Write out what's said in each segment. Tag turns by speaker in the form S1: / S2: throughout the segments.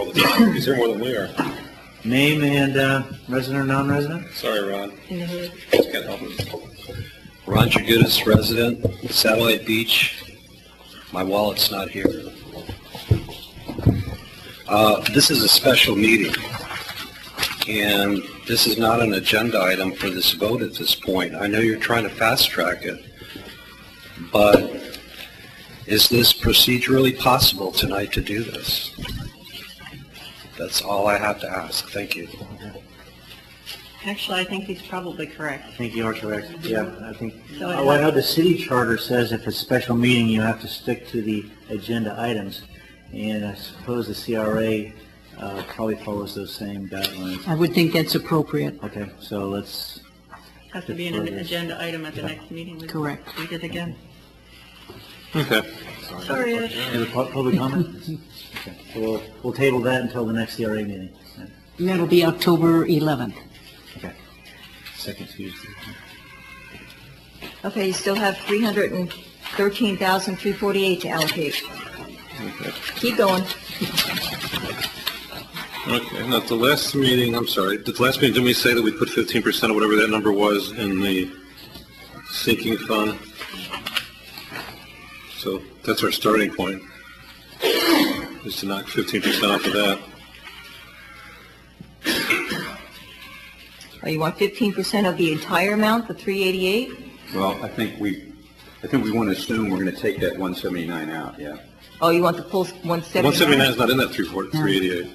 S1: all the time. He's here more than we are.
S2: Name and uh, resident or non-resident?
S1: Sorry, Ron. Just can't help it. Ron Jagutis, resident, Satellite Beach. My wallet's not here. Uh, This is a special meeting, and this is not an agenda item for this vote at this point. I know you're trying to fast-track it, but is this procedurally possible tonight to do this? That's all I have to ask. Thank you.
S3: Actually, I think he's probably correct.
S2: I think you are correct. Yeah, I think,
S3: So it
S2: well, I know the city charter says if it's a special meeting, you have to stick to the agenda items. And I suppose the CRA uh, probably follows those same guidelines.
S4: I would think that's appropriate.
S2: Okay, so let's,
S3: Has to be an agenda item at the next meeting. We-
S4: Correct.
S3: We did again.
S1: Okay.
S3: Sorry, Ed.
S2: any pu- public comment? Okay, so We'll, we'll table that until the next CRA meeting.
S4: And that'll be October 11th.
S2: Okay. Second Tuesday.
S5: Okay, you still have three hundred and thirteen thousand, three forty-eight to allocate. Keep going.
S1: Okay, now, at the last meeting, I'm sorry, at the last meeting, didn't we say that we put fifteen percent or whatever that number was in the sinking fund? So that's our starting point, is to knock fifteen percent off of that.
S5: Oh, you want fifteen percent of the entire amount, the three eighty-eight?
S6: Well, I think we, I think we want to assume we're going to take that 179 out, yeah.
S5: Oh, you want the full one seventy-nine?
S1: One seventy-nine is not in that three forty, three eighty-eight.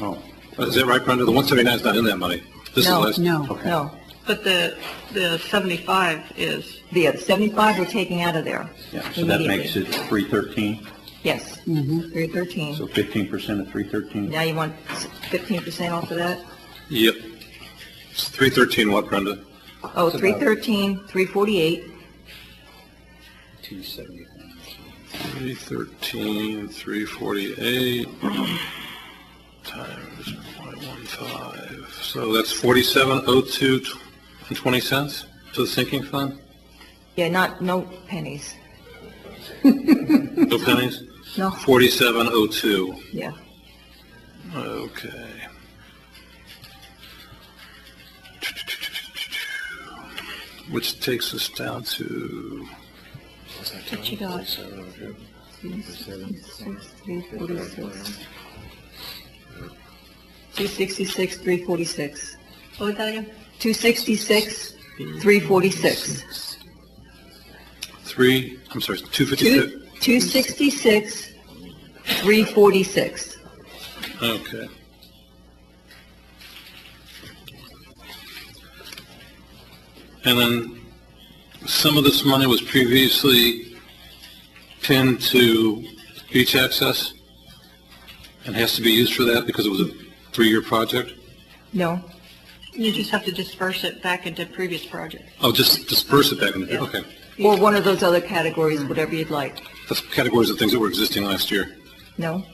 S6: Oh,
S1: Is that right, Brenda? The one seventy-nine is not in that money. This is
S5: No,
S1: last-
S4: No.
S5: No,
S3: But the, the 75 is,
S5: the other seventy-five we're taking out of there.
S6: yeah, so that makes
S5: immediately.
S6: it 313,
S5: Yes, three
S6: so
S5: thirteen.
S6: 15% of 313.
S5: Now you want fifteen percent off of that?
S1: Yep. It's three thirteen what, Brenda?
S5: Oh, three thirteen, three forty-eight,
S6: Two seventy-one.
S1: Three thirteen, three forty-eight, times point one five, so that's forty-seven oh two and twenty cents to the sinking fund?
S5: yeah, not, no pennies,
S1: No pennies?
S5: no,
S1: Forty-seven oh two,
S5: yeah.
S1: okay. Which takes us down to,
S5: What you got? Two sixty-six, three forty-six.
S3: what was that again?
S5: Two sixty-six, three forty-six.
S1: three, I'm sorry, two fifty-six?
S5: Two, two sixty-six, three forty-six.
S1: Okay. And then some of this money was previously pinned to beach access and has to be used for that because it was a three-year project?
S5: No,
S3: You just have to disperse it back into previous projects.
S1: Oh, just disperse it back in the, okay.
S5: or one of those other categories, whatever you'd like.
S1: That's categories of things that were existing last year.
S5: No?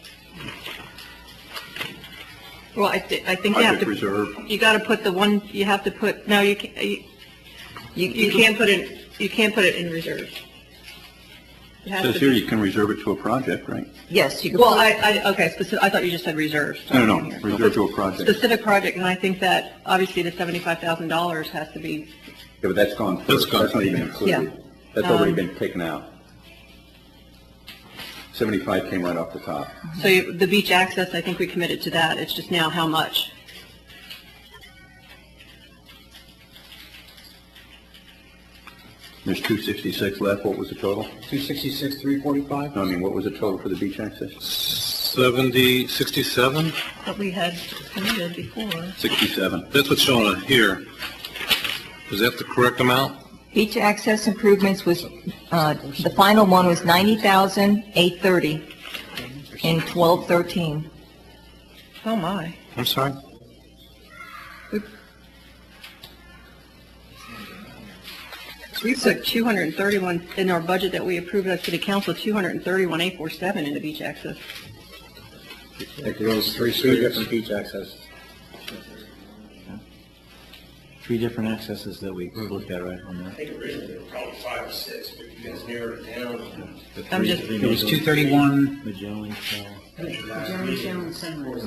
S3: Well, I, thi- I think you have
S6: Project
S3: to,
S6: reserve,
S3: you got to put the one, you have to put, no, you can't, you- you can't put it, you can't put it in reserve. It has
S6: says
S3: to
S6: here
S3: be-
S6: you can reserve it to a project, right?
S5: Yes, you could.
S3: Well, I, I, okay, specific, I thought you just said reserves.
S6: No, no, no, reserve to a project. Yeah,
S3: Specific project, and I think that obviously the $75,000 has to be
S6: but that's gone
S1: That's
S6: first,
S1: gone. Um,
S6: that's not even included.
S3: Yeah.
S6: That's already been taken out. 75 came right off the top.
S3: So you- the beach access, I think we committed to that, it's just now how much.
S6: There's 266 left, what was the total?
S2: 266, 345?
S6: No, I mean, what was the total for the beach access?
S1: Seventy, sixty-seven?
S3: But we had committed before.
S6: 67.
S1: That's what's shown on here. Is that the correct amount?
S5: Beach access improvements was, uh, the final one was ninety thousand, eight thirty in twelve thirteen.
S3: Oh, my.
S1: I'm sorry?
S3: We put 231 in our budget that we approved at city council, 231,847 into beach access.
S2: It goes three, three different beach accesses. Three different accesses that we looked at, right, on
S7: I
S2: that?
S7: think originally there were probably five or six, but you guys narrowed it down.
S2: The
S3: I'm
S2: three-
S3: just-
S2: three
S8: It was
S2: Magellan-
S8: 231,
S2: Magellan, Cal- Jeremy Jones, Sunrise.